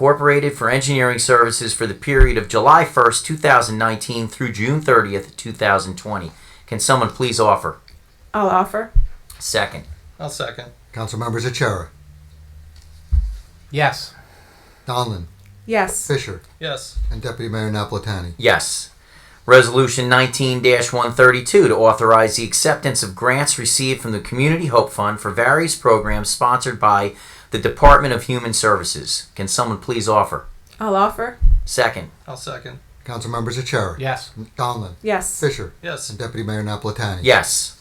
Incorporated for engineering services for the period of July 1st, 2019 through June 30th, 2020. Can someone please offer? I'll offer. Second. I'll second. Council members Achara, Yes. Donlin, Yes. Fisher, Yes. and Deputy Mayor Napolitani. Yes. Resolution 19 132 to authorize the acceptance of grants received from the Community Hope Fund for various programs sponsored by the Department of Human Services. Can someone please offer? I'll offer. Second. I'll second. Council members Achara, Yes. Donlin, Yes. Fisher, Yes. and Deputy Mayor Napolitani. Yes.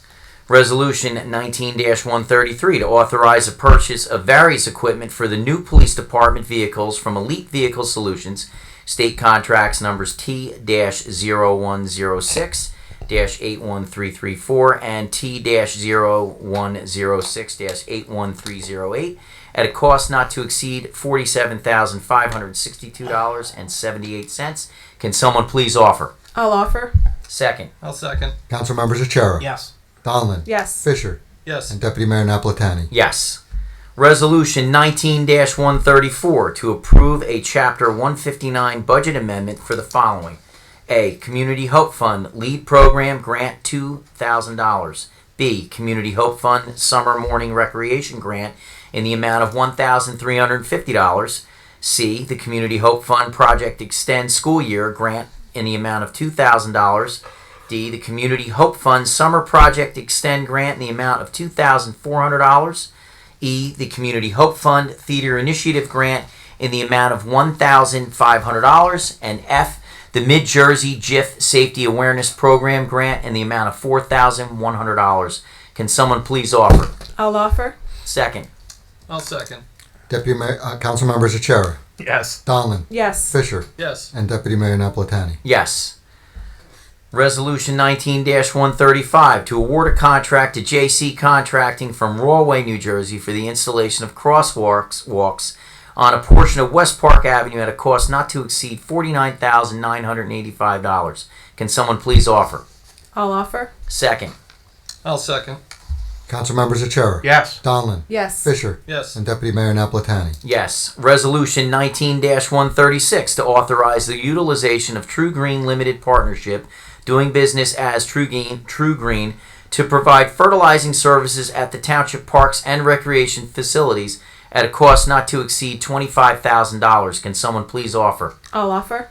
Resolution 19 133 to authorize the purchase of various equipment for the new police department vehicles from Elite Vehicle Solutions, state contracts numbers T 0106 81334 and T 0106 81308 at a cost not to exceed $47,562.78. Can someone please offer? I'll offer. Second. I'll second. Council members Achara, Yes. Donlin, Yes. Fisher, Yes. and Deputy Mayor Napolitani. Yes. Resolution 19 134 to approve a Chapter 159 budget amendment for the following A. Community Hope Fund Lead Program Grant $2,000. B. Community Hope Fund Summer Morning Recreation Grant in the amount of $1,350. C. The Community Hope Fund Project Extend School Year Grant in the amount of $2,000. D, the Community Hope Fund Summer Project Extend Grant in the amount of $2,400. E, the Community Hope Fund Theater Initiative Grant in the amount of $1,500. And F, the Mid Jersey GIF Safety Awareness Program Grant in the amount of $4,100. Can someone please offer? I'll offer. Second. I'll second. Deputy Mayor, uh, Council members Achara, Yes. Donlin, Yes. Fisher, Yes. and Deputy Mayor Napolitani. Yes. Resolution 19 135 to award a contract to JC Contracting from Rawway, New Jersey for the installation of crosswalks walks on a portion of West Park Avenue at a cost not to exceed $49,985. Can someone please offer? I'll offer. Second. I'll second. Council members Achara, Yes. Donlin, Yes. Fisher, Yes. and Deputy Mayor Napolitani. Yes. Resolution 19 136 to authorize the utilization of True Green Limited Partnership, doing business as True Green, True Green to provide fertilizing services at the township parks and recreation facilities at a cost not to exceed $25,000. Can someone please offer? I'll offer.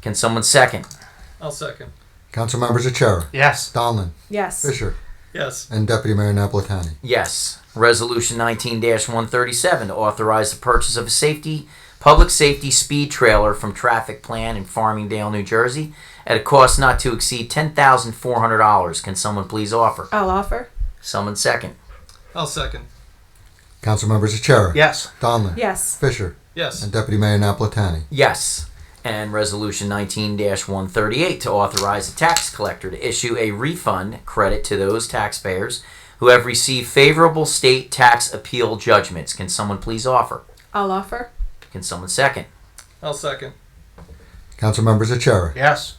Can someone second? I'll second. Council members Achara, Yes. Donlin, Yes. Fisher, Yes. and Deputy Mayor Napolitani. Yes. Resolution 19 137 to authorize the purchase of a safety, public safety speed trailer from Traffic Plan in Farmingdale, New Jersey, at a cost not to exceed $10,400. Can someone please offer? I'll offer. Someone second. I'll second. Council members Achara, Yes. Donlin, Yes. Fisher, Yes. and Deputy Mayor Napolitani. Yes. And Resolution 19 138 to authorize the tax collector to issue a refund credit to those taxpayers who have received favorable state tax appeal judgments. Can someone please offer? I'll offer. Can someone second? I'll second. Council members Achara, Yes.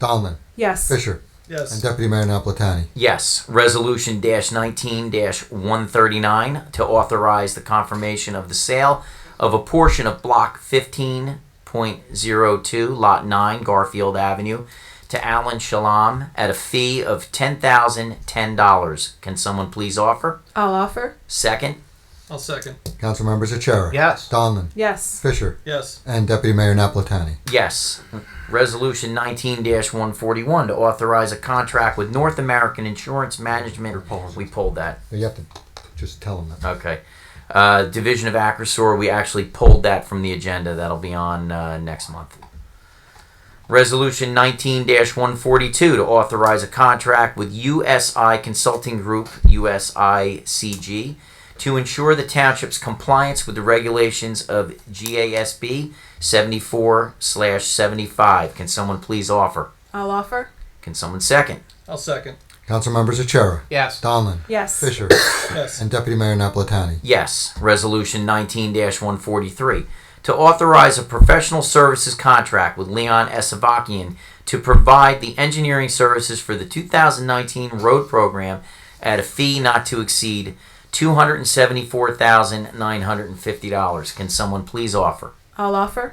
Donlin, Yes. Fisher, and Yes. Deputy Mayor Napolitani. Yes, resolution dash nineteen dash one thirty nine to authorize the confirmation of the sale of a portion of block fifteen point zero two, lot nine, Garfield Avenue, to Alan Shalom at a fee of ten thousand ten dollars. Can someone please offer? I'll offer. Second? I'll second. Council members Achara, Yes. Donlin, Yes. Fisher, Yes. and Deputy Mayor Napolitani. Yes. Resolution 19 141 to authorize a contract with North American Insurance Management. We pulled that. You have to just tell them that. Okay. Uh, Division of Acrosur, we actually pulled that from the agenda. That'll be on uh, next month. Resolution 19 142 to authorize a contract with USI Consulting Group, USICG, to ensure the township's compliance with the regulations of GASB 74 75. Can someone please offer? I'll offer. Can someone second? I'll second. Council members Achara, Yes. Donlin, Yes. Fisher, Yes. and Deputy Mayor Napolitani. Yes. Resolution 19 143 to authorize a professional services contract with Leon Esavakian to provide the engineering services for the 2019 road program at a fee not to exceed $274,950. Can someone please offer? I'll offer.